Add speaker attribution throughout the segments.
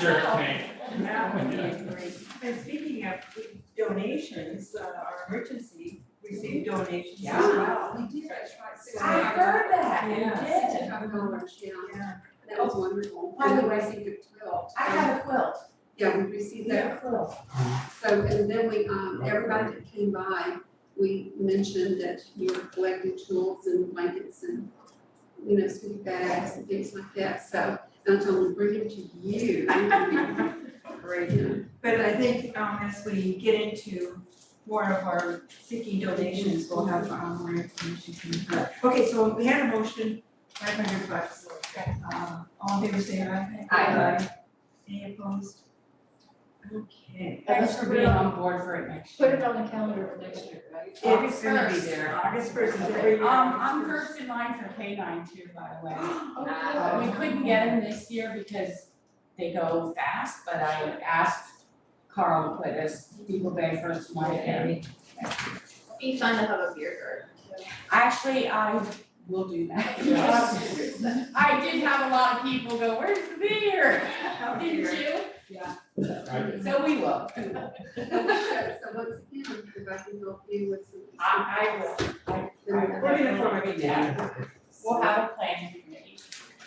Speaker 1: Sure thing.
Speaker 2: That would be great.
Speaker 3: And speaking of donations, uh, our emergency received donations as
Speaker 2: Yeah.
Speaker 3: well.
Speaker 4: We did.
Speaker 2: I heard that, you
Speaker 3: Yeah.
Speaker 2: did.
Speaker 4: Sixty-five dollars, yeah,
Speaker 3: Yeah.
Speaker 4: that was wonderful.
Speaker 2: By the way,
Speaker 4: We received a quilt.
Speaker 2: I have a quilt,
Speaker 4: Yeah, we received that
Speaker 2: quilt.
Speaker 4: So, and then we, um, everybody that came by, we mentioned that you were collecting tools and blankets and, you know, sleeping bags and things like that, so, and I told them, bring it to you.
Speaker 2: Great.
Speaker 4: You
Speaker 3: But I think, um, as we get into more of our seeking donations, we'll have, um, more information coming through. Okay, so we had a motion, five hundred bucks. Um, all in favor, say aye.
Speaker 2: Aye.
Speaker 3: Any opposed? Okay.
Speaker 5: Thanks for being on board for it next
Speaker 6: Put
Speaker 5: year.
Speaker 6: it on the calendar for next year, right?
Speaker 5: August
Speaker 3: August first.
Speaker 5: first.
Speaker 3: August first is every
Speaker 5: Um,
Speaker 3: year.
Speaker 5: I'm first in line for K nine too, by the way. Uh, We couldn't get them this year because they go fast, but I asked Carl to put us Depot Bay first one in.
Speaker 6: Be fun to have a beer
Speaker 5: Actually, I will do that.
Speaker 6: garden.
Speaker 5: I did have a lot of people go, where's the beer?
Speaker 3: Oh, dear.
Speaker 5: Didn't you?
Speaker 1: I-
Speaker 5: So we
Speaker 4: know,
Speaker 5: will.
Speaker 4: So, so once again, if I can help you with some.
Speaker 5: I, I will. I- I-
Speaker 3: We're gonna throw it
Speaker 5: Yeah. We'll have a plan committee.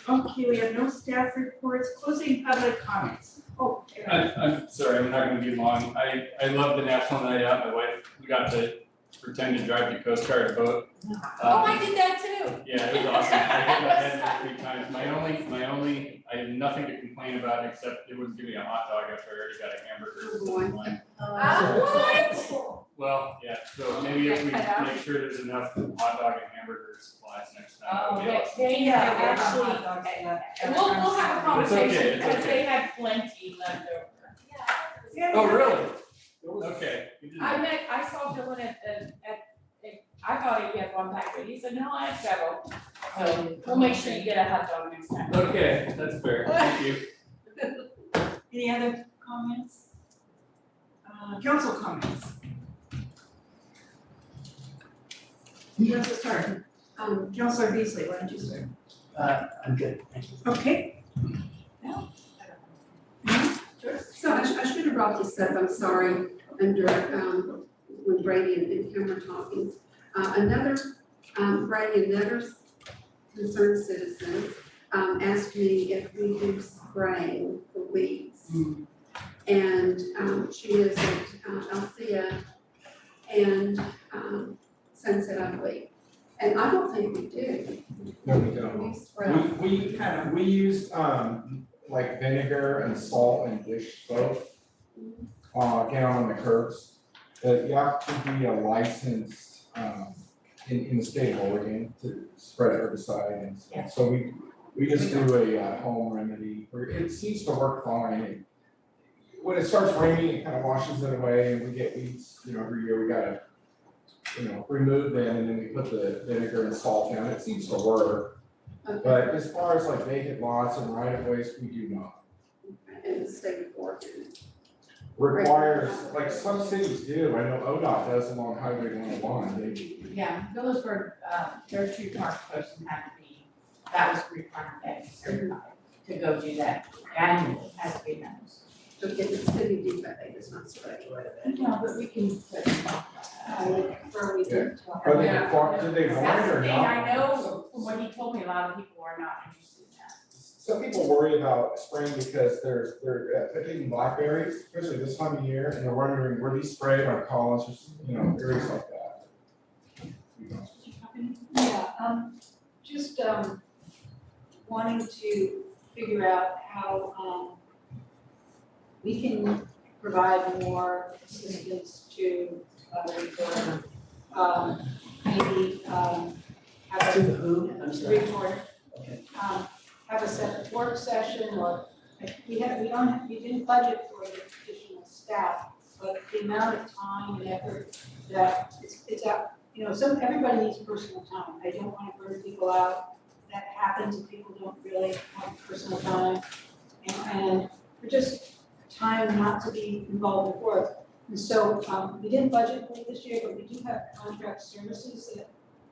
Speaker 3: Okay, we have no staff reports, closing public comments. Oh, Eric.
Speaker 1: I, I'm sorry, I'm not gonna be long. I, I love the National Night Out. My wife, we got to pretend to drive the Coast Guard boat.
Speaker 5: Oh,
Speaker 1: Um,
Speaker 5: I did that too.
Speaker 1: Yeah, it was awesome. I hit my head like three times. My only, my only, I have nothing to complain about except it was giving a hot dog after I already got a hamburger.
Speaker 4: Oh, boy.
Speaker 1: from one.
Speaker 5: Uh, what?
Speaker 1: Well, yeah, so maybe if we make sure there's enough hot dog and hamburger supplies next time. that would
Speaker 5: Oh,
Speaker 1: be
Speaker 5: they,
Speaker 1: awesome.
Speaker 5: they
Speaker 3: Yeah, uh,
Speaker 5: have
Speaker 3: we're
Speaker 5: actually,
Speaker 3: on hot dogs left.
Speaker 5: we'll, we'll have a
Speaker 1: It's okay,
Speaker 5: conversation,
Speaker 1: it's
Speaker 5: because
Speaker 1: okay.
Speaker 5: they had plenty left over.
Speaker 3: Yeah,
Speaker 1: Oh,
Speaker 3: yeah.
Speaker 1: really? Okay. you didn't-
Speaker 5: I met, I saw Dylan at, at, at, at- I thought he had one pack, but he said, no, I have several.
Speaker 3: Uh,
Speaker 5: So we'll make sure you get a hot dog next time.
Speaker 1: Okay, that's fair. Thank you.
Speaker 3: Any other comments? Uh, council comments? Council start,
Speaker 4: Um,
Speaker 3: Councilor Beasley, why don't you start?
Speaker 7: Uh, I'm good, thank you.
Speaker 3: Okay.
Speaker 4: So I should, I should have brought this up, I'm sorry, under, um, when Brady and, and Kim were talking. Uh, another, um, Brady, another concerned citizen, um, asked me if we do spraying for weeds. And, um, she lives at, uh, Althea and, um, Sunset Ugly. And I don't think we do.
Speaker 8: No, we don't.
Speaker 4: We spray.
Speaker 8: We, we, we used, um, like vinegar and salt and dish soap, uh, down on the curbs. But you have to be a licensed, um, in, in the state of Oregon to spread herbicide and stuff. So we, we just do a, uh home remedy, or it seems to work fine. It- When it starts raining, it kind of washes it away and we get weeds, you know, every year we gotta, you know, remove them and then we put the vinegar and salt down. It seems to work.
Speaker 4: Okay,
Speaker 8: But as far as like vacant lots and right of ways, we do not.
Speaker 4: and the state of Oregon.
Speaker 8: Requires, like some cities do, I know ODOT does along Highway one oh one, they,
Speaker 5: Yeah, those were, uh, their two park posts and had to be, that was required, that is certified, to go do that annually, has to be done.
Speaker 4: Okay, the city did, but they just not spray.
Speaker 5: No, but we can put.
Speaker 4: Where we did talk.
Speaker 8: are they required, do they want
Speaker 5: That's
Speaker 8: it
Speaker 5: the
Speaker 8: or
Speaker 5: thing,
Speaker 8: not?
Speaker 5: I know, from what he told me, a lot of people are not interested in that.
Speaker 8: Some people worry about spraying because they're, they're uh, picking blackberries, especially this time of year, and they're wondering, were these sprayed on college, or, s- you know, areas like that. We don't.
Speaker 6: Yeah, um, just, um, wanting to figure out how, um, we can provide more assistance to, uh, report, um, maybe, um, have a
Speaker 7: who?
Speaker 6: report.
Speaker 7: Okay.
Speaker 6: Um, have a separate work session or, we have, we don't, have- we didn't budget for the additional staff, but the amount of time and effort that it's, it's out, you know, some, everybody needs personal time. I don't want to burn people out. That happens if people don't really have personal time. And, and for just time not to be involved with work. And so, um, we didn't budget for it this year, but we do have contract services that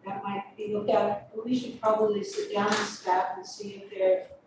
Speaker 6: that might be looked at, but we should probably sit down with staff and see if there